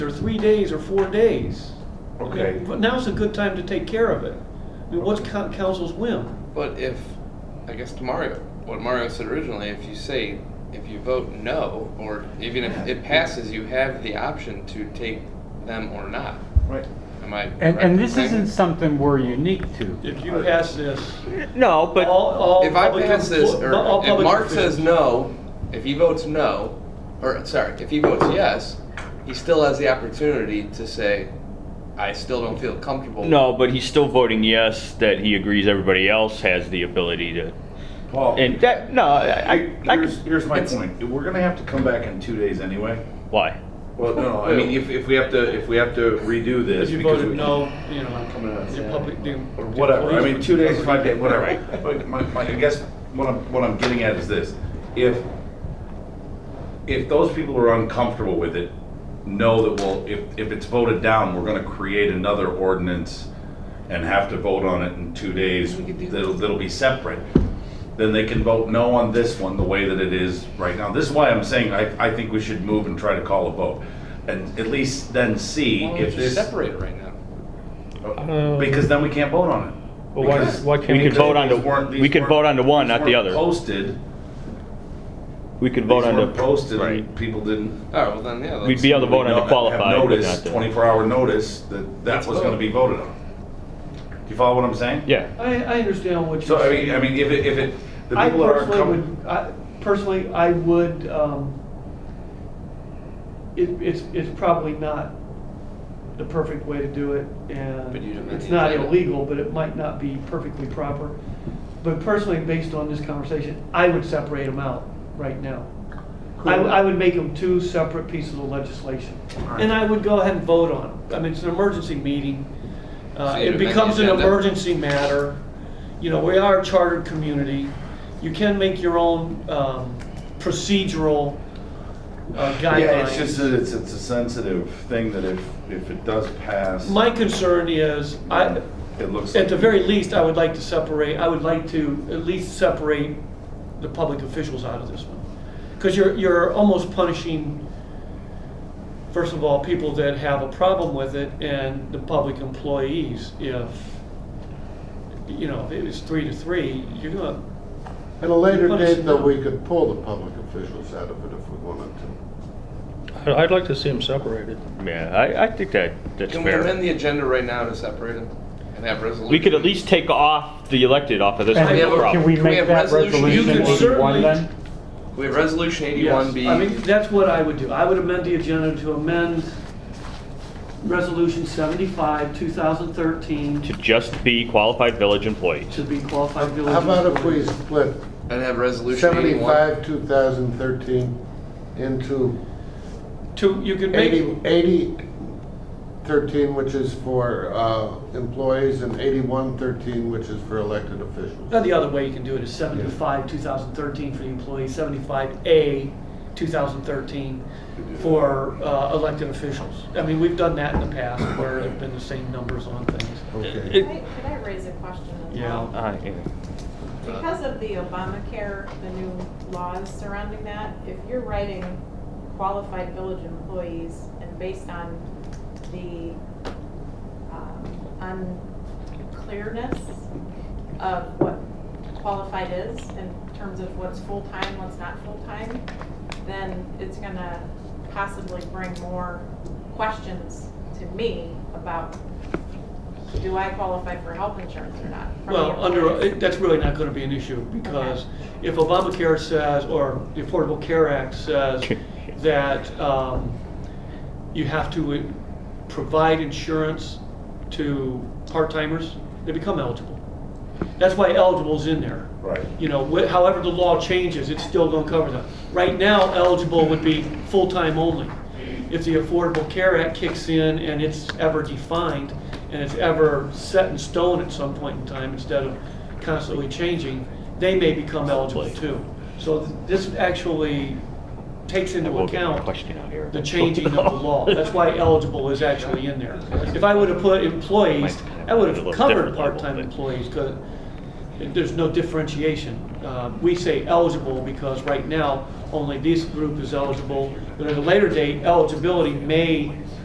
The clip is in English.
or three days or four days. I mean, Okay. But now's a good time to take care of it. I mean, what's coun- council's whim? But if, I guess to Mario, what Mario said originally, if you say, if you vote no, or even if it passes, you have the option to take them or not. Right. Am I? And, correct in and this saying isn't that? something we're unique to. If you pass this, No, all, all. If I public- pass this, or all if public Mark says officials- no, if he votes no, or, sorry, if he votes yes, he still has the opportunity to say, I still don't feel comfortable. No, but he's still voting yes that he agrees everybody else has the ability to. Paul, And that, no, I, I, I here's, here's my it's- point. We're gonna have to come back in two days anyway. why? Well, no, I mean, if, if we have to, if we have to redo this. If you because voted we- no, you know, coming out of the Saturday. public, the. Or whatever, I the mean, two days, five days, whatever. Right. But my, my, I guess what I'm, what I'm getting at is this, if, if those people are uncomfortable with it, know that, well, if, if it's voted down, we're gonna create another ordinance and have to vote on it in two days, We could do that. that'll, that'll be separate, then they can vote no on this one the way that it is right now. This is why I'm saying I, I think we should move and try to call a vote. And at least then see Why if don't you this, separate it right now? because then we can't vote on it. Well, why- Because- why can't We we- could vote on the- These weren't- these we could weren't- vote on the one, these not the weren't other. Posted. We could vote These on the. weren't Posted, Right. and people didn't. All right, Oh, well then, yeah. We'd let's- be able to vote on know- the have qualified, but notice, not the. Twenty-four hour notice that that Let's was gonna vote. be voted on. Do you follow what I'm saying? Yeah, I, I understand what So, you're I saying. mean, I mean, if it, if it, the I people that aren't personally coming. would, I, personally, I would, um, it, it's, it's probably not the perfect way to do it, and But you don't have it's the not agenda. illegal, but it might not be perfectly proper. But personally, based on this conversation, I would separate them out right now. I, Cool. I would make them two separate pieces of legislation, Alright. and I would go ahead and vote on them. I mean, it's an emergency meeting, uh, So you'd it amend the becomes an agenda? emergency matter. You know, we are a chartered community. You can make your own um, procedural uh, Yeah, it's just guidelines. that it's, it's a sensitive thing that if, if it does pass. My concern is, I, It looks. at the very least, I would like to separate, I would like to at least separate the public officials out of this one. Because you're, you're almost punishing, first of all, people that have a problem with it and the public employees if, you know, if it was three to three, you're gonna, At a later Punish date, though, them. we could pull the public officials out of it if we wanted to. I'd- I'd like to see them separated. yeah, I, I think that, that's Can we amend fair. the agenda right now to separate them and have resolution? We could at least take off the elected off of this. And we have a- can we can we make have that resolution? You resolution could eighty-one certainly- then? We have resolution eighty-one yes. B. I mean, that's what I would do. I would amend the agenda to amend Resolution seventy-five, two thousand thirteen, To just be qualified village employees. to be qualified village. How about if we employees. split And have resolution eighty-one. seventy-five, two thousand thirteen into To, you could make. eighty, eighty, thirteen, which is for, uh, employees, and eighty-one, thirteen, which is for elected officials. Now, the other way you can do it is seventy-five, two thousand thirteen for the employee, seventy-five A, two thousand thirteen for uh, elected officials. I mean, we've done that in the past where it's been the same numbers on things. Okay. It- Could I- could I raise a question as well? Yeah. Uh, yeah. Because of the Obamacare, the new laws surrounding that, if you're writing qualified village employees and based on the um, unclearness of what qualified is in terms of what's full-time, what's not full-time, then it's gonna possibly bring more questions to me about, do I qualify for health insurance or not? from the Well, under, employees. it- that's really not gonna be an issue, because if Obamacare says, or the Affordable Care Act says, that um, you have to uh, provide insurance to part-timers, they become eligible. That's why eligible's in there. Right. You know, wh- however the law changes, it's still gonna cover them. Right now, eligible would be full-time only. If the Affordable Care Act kicks in and it's ever defined, and it's ever set in stone at some point in time, instead of constantly changing, they may become eligible too. So th- this actually takes I into will get my account question out here. the changing of the law. That's why eligible is actually in there. If I would have put employees, I would have covered part-time employees, because there's no differentiation. Uh, We say eligible because right now, only this group is eligible, but at a later date, eligibility may